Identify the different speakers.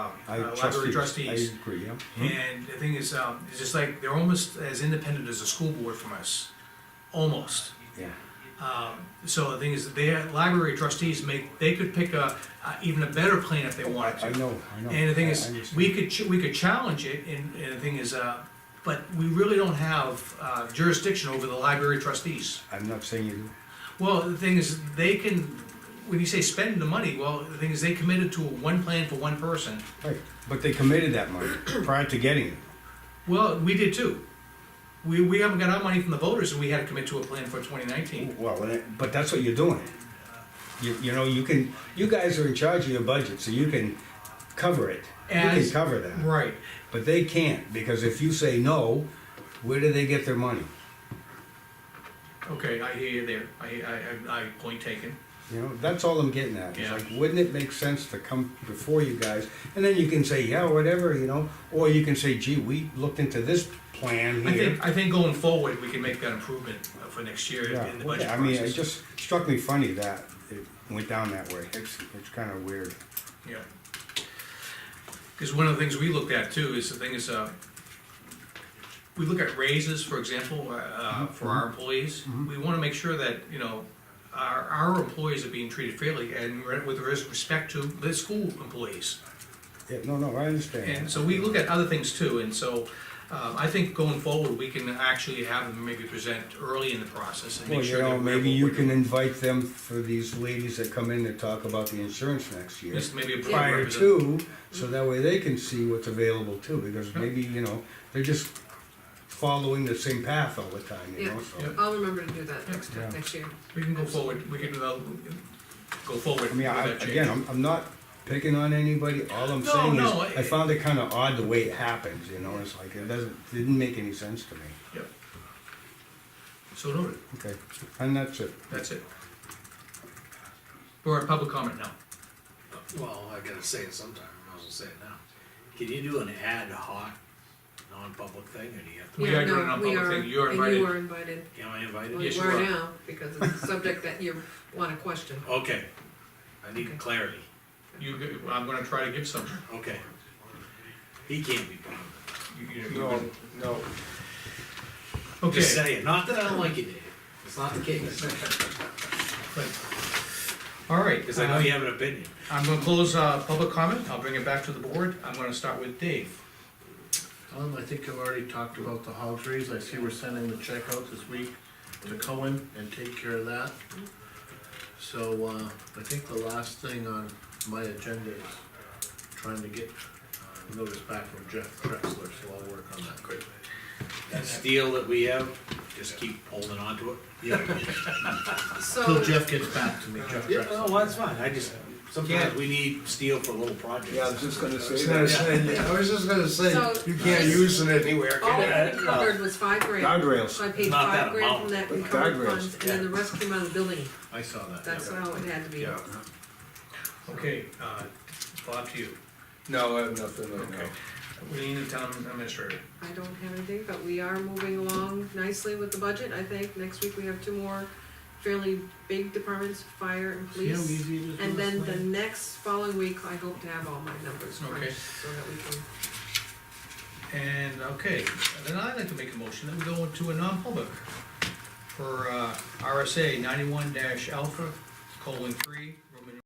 Speaker 1: I
Speaker 2: uh,
Speaker 1: trust
Speaker 2: library
Speaker 1: you.
Speaker 2: trustees.
Speaker 1: I Hmm? agree, yeah.
Speaker 2: And the thing is, um, it's just like, they're almost as independent as a school board from us, almost.
Speaker 1: Yeah.
Speaker 2: Um, so the thing is, the library trustees make, they could pick a, uh, even a better plan if they wanted to.
Speaker 1: I know, I know.
Speaker 2: And the thing
Speaker 1: I- I
Speaker 2: is,
Speaker 1: understand.
Speaker 2: we could, ch- we could challenge it, and, and the thing is, uh, but we really don't have uh, jurisdiction over the library trustees.
Speaker 1: I'm not saying you,
Speaker 2: Well, the thing is, they can, when you say spend the money, well, the thing is, they committed to one plan for one person.
Speaker 1: right, but they committed that money prior to getting it.
Speaker 2: Well, we did too. We, we haven't got our money from the voters, and we had to commit to a plan for twenty nineteen.
Speaker 1: Well, and it- but that's what you're doing. You, you know, you can, you guys are in charge of your budget, so you can cover it. You can
Speaker 2: As-
Speaker 1: cover that.
Speaker 2: Right,
Speaker 1: But they can't, because if you say no, where do they get their money?
Speaker 2: okay, I hear you there, I, I, I, I, point taken.
Speaker 1: You know, that's all I'm getting at. It's
Speaker 2: Yeah.
Speaker 1: like, wouldn't it make sense to come before you guys? And then you can say, yeah, whatever, you know, or you can say, gee, we looked into this plan
Speaker 2: I
Speaker 1: here.
Speaker 2: think, I think going forward, we can make that improvement uh, for next year
Speaker 1: Yeah,
Speaker 2: in the
Speaker 1: okay.
Speaker 2: budget
Speaker 1: I mean, it
Speaker 2: process.
Speaker 1: just struck me funny that it went down that way. It's, it's kinda weird.
Speaker 2: Yeah. Because one of the things we looked at too is the thing is, uh, we look at raises, for example, uh, uh,
Speaker 1: Mm-hmm.
Speaker 2: for our employees. We wanna make sure that, you know, our, our employees are being treated fairly and re- with res- respect to the school employees.
Speaker 1: Yeah, no, no, I understand.
Speaker 2: And so we look at other things too, and so, uh, I think going forward, we can actually have them maybe present early in the process and
Speaker 1: Well,
Speaker 2: make
Speaker 1: you
Speaker 2: sure
Speaker 1: know,
Speaker 2: that we're.
Speaker 1: maybe you can invite them for these ladies that come in to talk about the insurance next year.
Speaker 2: This may be a prior
Speaker 1: Prior
Speaker 2: representative.
Speaker 1: to, so that way they can see what's available too, because
Speaker 2: Yeah.
Speaker 1: maybe, you know, they're just following the same path all the time, you
Speaker 3: Yeah.
Speaker 1: know,
Speaker 2: Yeah.
Speaker 1: so.
Speaker 3: I'll remember to do that next
Speaker 1: Yeah.
Speaker 3: time, next year.
Speaker 2: We can go forward, we can, uh, go forward.
Speaker 1: I mean,
Speaker 2: with
Speaker 1: I,
Speaker 2: that change.
Speaker 1: again, I'm, I'm not picking on anybody, all I'm
Speaker 2: No,
Speaker 1: saying is,
Speaker 2: no, I-
Speaker 1: I found it kinda odd the way it happens, you know, it's like, it doesn't, didn't make any sense to me.
Speaker 2: Yep. So noted,
Speaker 1: Okay, and that's it.
Speaker 2: that's it. We're at public comment now.
Speaker 4: Well, I gotta say it sometime, I was gonna say it now. Can you do an ad hoc, non-public thing, or do you have to,
Speaker 2: We
Speaker 3: Yeah,
Speaker 2: are doing
Speaker 3: no,
Speaker 2: it on
Speaker 3: we
Speaker 2: public
Speaker 3: are,
Speaker 2: thing. You are
Speaker 3: And
Speaker 2: invited.
Speaker 3: you are invited.
Speaker 4: am I
Speaker 3: Well,
Speaker 4: invited?
Speaker 2: Yes,
Speaker 3: you
Speaker 2: you are.
Speaker 3: are now, because it's a subject that you wanna question.
Speaker 4: Okay, I
Speaker 3: Okay.
Speaker 4: need clarity,
Speaker 2: You, g- I'm gonna try to give some.
Speaker 4: okay. He can't be bothered.
Speaker 2: You- you- you-
Speaker 5: No, no,
Speaker 4: Just
Speaker 2: Okay.
Speaker 4: saying, not that I don't like you, Dave, it's not the case,
Speaker 2: All right,
Speaker 4: cause I know you
Speaker 2: uh,
Speaker 4: have an opinion.
Speaker 2: I'm gonna close, uh, public comment. I'll bring it back to the board. I'm gonna start with Dave.
Speaker 6: Um, I think I've already talked about the hog trees, I see we're sending the check out this week to Cohen and take care of that. So, uh, I think the last thing on my agenda is trying to get uh, notice back from Jeff Drexler, so I'll work on that. Great.
Speaker 4: That steel that we have, just keep holding on to it.
Speaker 6: Yeah,
Speaker 3: So,
Speaker 6: till Jeff gets back to me, Jeff
Speaker 4: Yeah, no,
Speaker 6: Drexler.
Speaker 4: well, that's fine, I just, sometimes we need steel for little projects.
Speaker 5: yeah, I was just gonna say
Speaker 4: gonna
Speaker 5: that. Yeah, I was just gonna say,
Speaker 3: So-
Speaker 5: you can't
Speaker 2: uh,
Speaker 5: use it anywhere,
Speaker 3: all
Speaker 5: can
Speaker 3: that we
Speaker 5: you?
Speaker 4: Uh,
Speaker 3: covered was five grand, so
Speaker 1: Guardrails,
Speaker 3: I paid
Speaker 4: Not that
Speaker 3: five grand
Speaker 4: amount,
Speaker 3: from that
Speaker 5: but
Speaker 3: recovered
Speaker 5: guardrails,
Speaker 3: funds, and then the rest came out of the building,
Speaker 6: I saw that.
Speaker 3: that's
Speaker 6: yeah.
Speaker 3: how it had to be.
Speaker 5: Yeah,
Speaker 2: Okay, uh, Bob to you.
Speaker 5: no, I have nothing right
Speaker 2: Okay.
Speaker 5: now.
Speaker 2: We need the town administrator.
Speaker 3: I don't have anything, but we are moving along nicely with the budget, I think, next week we have two more fairly big departments, fire and
Speaker 4: See how
Speaker 3: police.
Speaker 4: easy it is to
Speaker 3: And then the
Speaker 4: explain?
Speaker 3: next following week, I hope to have all my numbers
Speaker 2: Okay.
Speaker 3: crunched, so that we can
Speaker 2: And, okay, then I'd like to make a motion that we go into a non-public for uh, RSA ninety-one dash alpha colon three